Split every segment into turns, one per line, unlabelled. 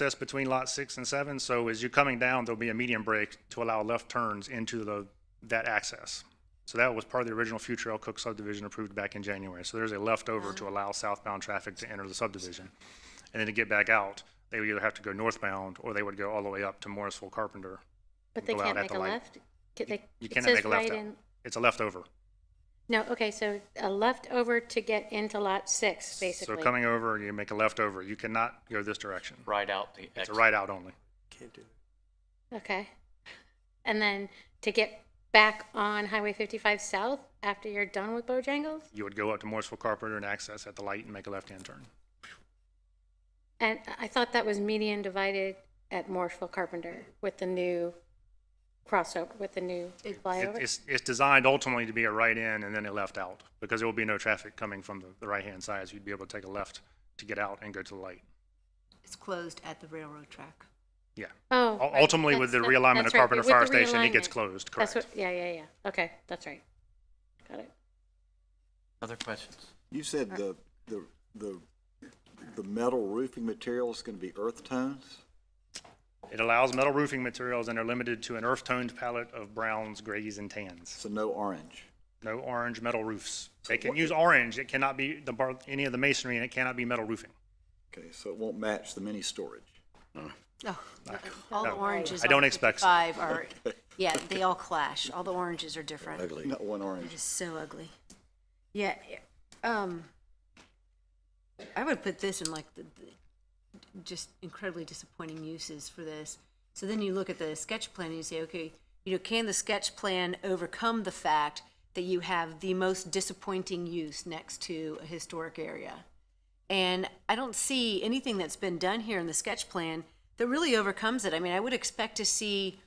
that's between lot six and seven. So as you're coming down, there'll be a median break to allow left turns into the, that access. So that was part of the original future Elk Cook subdivision approved back in January. So there's a leftover to allow southbound traffic to enter the subdivision. And then to get back out, they would either have to go northbound or they would go all the way up to Morrisville Carpenter.
But they
go out
can't
at
make
the
a
light.
left? Ca- they-
You
it
cannot
says
make a left
right
out.
in-
It's a leftover.
No, okay, so a left over to get into lot six,
So
basically.
coming over, you make a leftover. You cannot go this direction.
Right out the
It's a
exit.
right out only.
Okay. And then to get back on Highway 55 South after you're done with Bojangles?
You would go up to Morrisville Carpenter and access at the light and make a left-hand turn.
And I thought that was median divided at Morrisville Carpenter with the new crossover, with the new
It-
flyover?
It's, it's designed ultimately to be a right in and then a left out, because there will be no traffic coming from the, the right-hand side, so you'd be able to take a left to get out and go to the light.
It's closed at the railroad track.
Yeah.
Oh.
Ul-
right,
Ultimately, with the
that's- that-
realignment
that's
of
right,
Carpenter
with the
Fire Station, it gets
realignment.
closed,
That's
correct?
what, yeah, yeah, yeah. Okay, that's right. Got it.
Other questions?
You said the, the, the, the metal roofing material is gonna be earth tones?
It allows metal roofing materials and are limited to an earth-toned palette of browns, grays, and tans.
So no orange?
No orange metal roofs. They can use orange, it cannot be the, bar- any of the masonry, and it cannot be metal roofing.
Okay, so it won't match the mini storage?
No, all the
No.
oranges.
Oh. I don't
on
expect so.
55 are, yeah, they all clash. All the oranges are different.
Not one
They're
orange.
just so ugly. Yeah, um, I would put this in like the, the- just incredibly disappointing uses for this. So then you look at the sketch plan and you say, okay, you know, can the sketch plan overcome the fact that you have the most disappointing use next to a historic area? And I don't see anything that's been done here in the sketch plan that really overcomes it. I mean, I would expect to see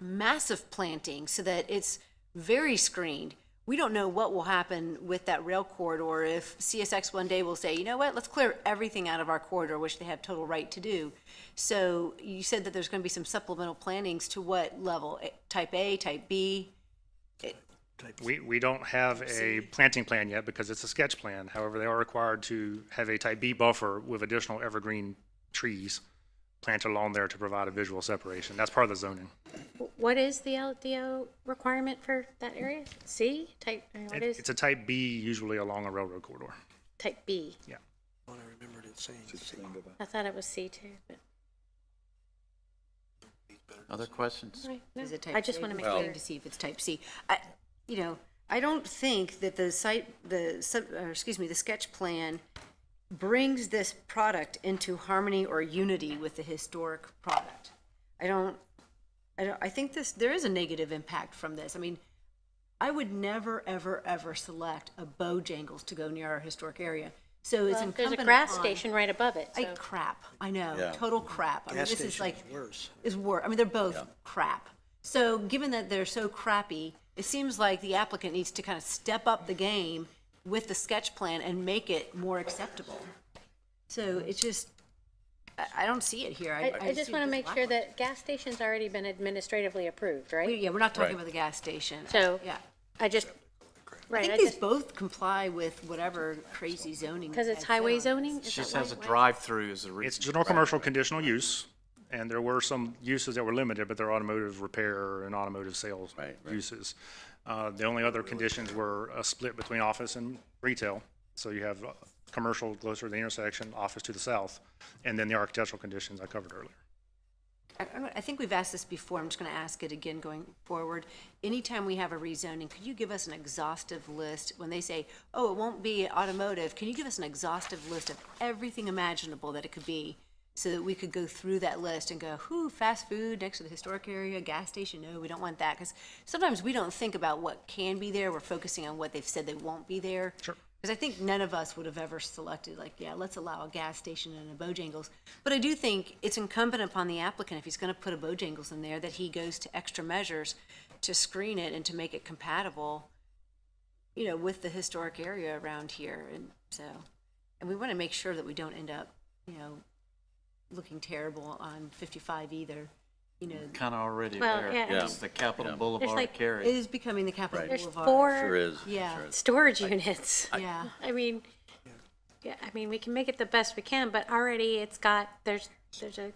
massive planting so that it's very screened. We don't know what will happen with that rail corridor if CSX one day will say, you know what, let's clear everything out of our corridor, which they have total right to do. So you said that there's going to be some supplemental plantings to what level? Eh, Type A, type B?
We, we don't have a planting plan yet because it's a sketch plan. However, they are required to have a type B buffer with additional evergreen trees planted along there to provide a visual separation. That's part of the zoning.
Wh- What is the LDO requirement for that area? C type, I mean, what
It-
is,
It's a type B usually along a railroad corridor.
type B?
Yeah.
I thought it was C too, but,
Other questions?
all right, no.
Is it type
I just
C?
want to make
Well-
sure.
To see if it's type C. I, you know, I don't think that the site, the sub, or excuse me, the sketch plan brings this product into harmony or unity with the historic product. I don't, I don't, I think this, there is a negative impact from this. I mean, I would never, ever, ever select a Bojangles to go near our historic area. So
Well,
it's
There's a
incumbent
grass
upon-
station right above it,
I
so-
crap. I know.
Yeah.
Total crap. I mean,
Gas
this is
station
like
is worse.
is wor I mean, they're both crap. So given that they're so crappy, it seems like the applicant needs to kind of step up the game with the sketch plan and make it more acceptable. So it's just, I, I don't see it here.
I, I just
see
want
it
to
as
make sure
lackluster.
that gas station's already been administratively approved,
We-
right?
Yeah, we're not
Right.
talking about the gas station.
So-
Yeah.
I just,
I
right,
think
I
these
just,
both comply with whatever crazy zoning.
because it's
has
highway
been on
zoning? is
She
that
says a
why- why-
drive-through is a reason.
It's general commercial conditional use, and there were some uses that were limited, but they're automotive repair and automotive sales uses. Uh, The only other conditions were a split between office and retail. So you have uh, commercial closer to the intersection, office to the south, and then the architectural conditions I covered earlier.
I- I I think we've asked this before, I'm just going to ask it again going forward. Anytime we have a rezoning, could you give us an exhaustive list? When they say, oh, it won't be automotive, can you give us an exhaustive list of everything imaginable that it could be? So that we could go through that list and go, whoo, fast food next to the historic area, gas station, no, we don't want that. Because sometimes we don't think about what can be there, we're focusing on what they've said they won't be there.
Sure.
Because I think none of us would have ever selected, like, yeah, let's allow a gas station and a Bojangles. But I do think it's incumbent upon the applicant, if he's going to put a Bojangles in there, that he goes to extra measures to screen it and to make it compatible, you know, with the historic area around here. And so, and we want to make sure that we don't end up, you know, looking terrible on 55 either. You know,
Kind of already
Well,
there.
yeah,
It's the Capitol Boulevard
like-
it
carry.
is becoming the capital
There's
boulevard.
four
is.
Yeah.
storage units.
Yeah.
I mean, yeah, I mean, we can make it the best we can, but already it's got, there's, there's a